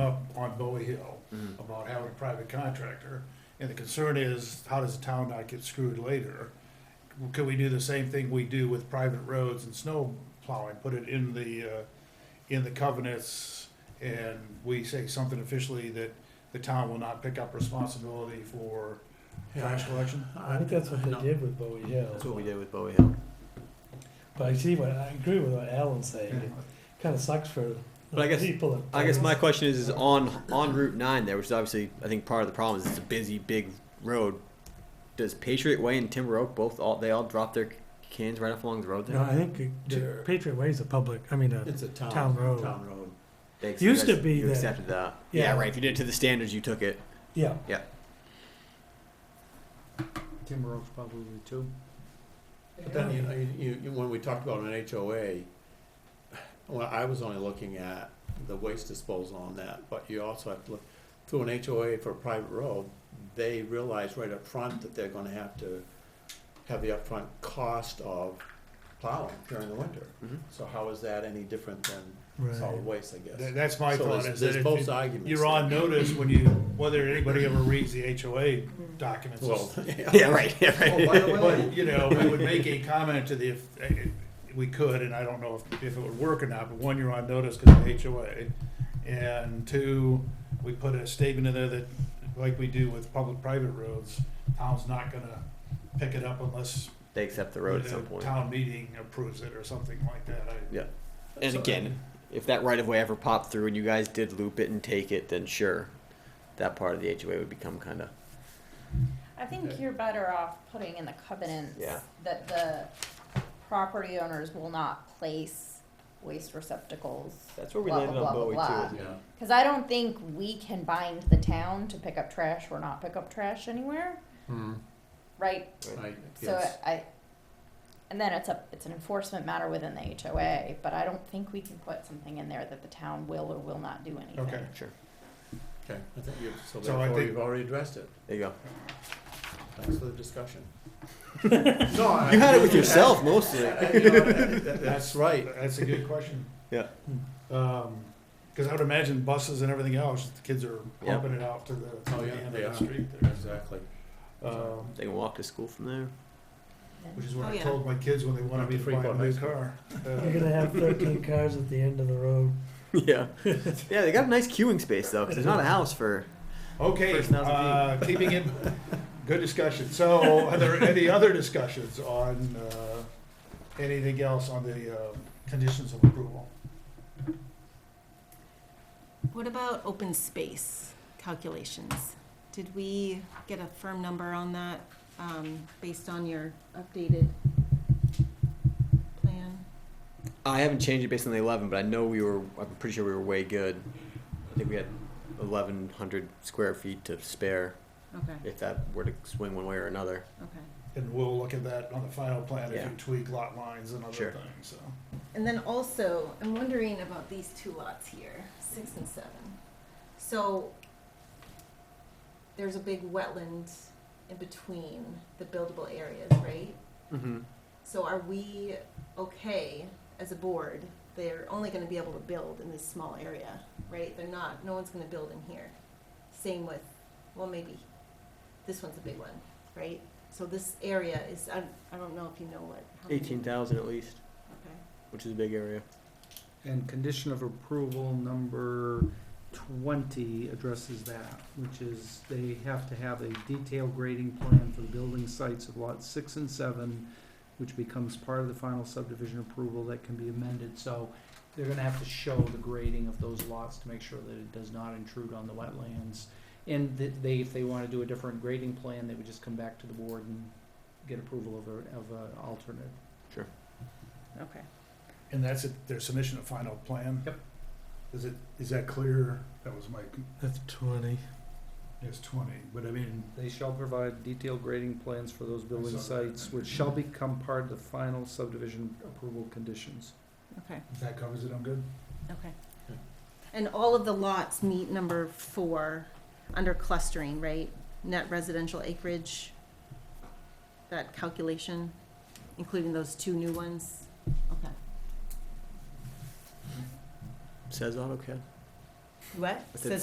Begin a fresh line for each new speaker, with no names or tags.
up on Bowie Hill about having a private contractor. And the concern is, how does the town not get screwed later? Could we do the same thing we do with private roads and snow plowing, put it in the, uh, in the covenants? And we say something officially that the town will not pick up responsibility for trash collection?
I think that's what they did with Bowie
That's
Hill.
what we did with Bowie Hill.
But I see what, I agree with what Alan's saying. It kind of sucks for
But I
the
guess-
people. that-
I guess my question is, is on on Route Nine there, which is obviously I think part of the problem is it's a busy big road. Does Patriot Way and Timber Oak both all they all drop their cans right off along the road there?
No, I think it-
There-
Patriot Way is a public, I mean, a
It's a town.
town road.
Town road.
They accept-
Used
you
to be
you
that-
accepted that.
Yeah.
Yeah. right. If you did it to the standards, you took it.
Yeah,
Timber Oaks probably too. But then, you know, you- you, you, when we talked about an HOA, well, I was only looking at the waste disposal on that, but you also have to look, through an HOA for a private road, they realize right up front that they're gonna have to have the upfront cost of plowing during the winter.
Mhm.
So how is that any different than solid
right.
waste, I
That-
guess?
That's my
So
thought,
there's-
is that
there's
if
both
you-
arguments
you're on notice when you, whether anybody ever reads the HOA documents.
Well,
Yeah, right. Yeah,
Oh,
right.
by the way,
But, you know, we would make a comment to the, if we could, and I don't know if, if it would work or not, but one, you're on notice because of HOA. And two, we put a statement in there that, like we do with public-private roads, town's not gonna pick it up unless
they accept the road at
the
some point.
town meeting approves it or something like that. I-
Yeah. And
So-
again, if that right of way ever popped through and you guys did loop it and take it, then sure, that part of the HOA would become kind of
I think you're better off putting in the covenants
Yeah.
that the property owners will not place waste receptacles.
That's where we
blah,
landed
blah,
on
blah,
Bowie,
blah,
too,
blah.
Yeah.
Cause I don't think we can bind the town to pick up trash or not pick up trash anywhere,
Hmm,
right?
I
So
guess.
I, and then it's a, it's an enforcement matter within the HOA, but I don't think we can put something in there that the town will or will not do anything.
Okay.
sure.
Okay, I think you've, so
So I
therefore
think-
you've already addressed it.
There you go.
Thanks for the discussion. No, I-
You had it with yourself mostly.
I- you know, that- that- That's right.
That's a good question.
Yeah.
Um, cause I would imagine buses and everything else, the kids are
Yeah.
pumping it out to the, to
Oh,
the
yeah,
end
they
of
are.
the street there.
Exactly.
Um,
They can walk to school from there.
Which is what
Oh,
I
yeah.
told my kids when they wanted me to
Freak
buy a
out
new
high school.
car. Uh,
You're gonna have thirteen cars at the end of the road.
Yeah. yeah, they got a nice queuing space though, 'cause there's not a house for.
Okay,
First thousand
uh, keeping it, good discussion. So are there any other discussions on, uh, anything else on the, uh, conditions of approval?
What about open space calculations? Did we get a firm number on that, um, based on your updated plan?
I haven't changed it based on the 11, but I know we were. I'm pretty sure we were way good. I think we had 1,100 square feet to spare
Okay,
if that were to swing one way or another.
okay.
And we'll look at that on the final plan if
Yeah.
you tweak lot lines and other
Sure.
things, so.
And then also, I'm wondering about these two lots here, six and seven. So there's a big wetland in between the buildable areas, right?
Mm-hmm.
So are we okay as a board? They're only gonna be able to build in this small area, right? They're not, no one's gonna build in here. Same with, well, maybe, this one's a big one, right? So this area is, I, I don't know if you know what. how many-
18,000 at least,
Okay.
which is a big area.
And condition of approval number twenty addresses that, which is they have to have a detailed grading plan for the building sites of lots six and seven, which becomes part of the final subdivision approval that can be amended, so they're gonna have to show the grading of those lots to make sure that it does not intrude on the wetlands. And that they, if they wanna do a different grading plan, they would just come back to the board and get approval of a, of a alternate.
And that's it, their submission of final plan?
Yep.
Is it, is that clear? That was my,
That's twenty.
it's twenty, but I mean,
They shall provide detailed grading plans for those building
I saw that.
sites, which shall become part of the final subdivision approval conditions.
Okay,
if that covers it, I'm good?
okay. And all of the lots meet number four under clustering, right? Net residential acreage, that calculation, including those two new ones? Okay.
Says AutoCAD.
What?
I said
Says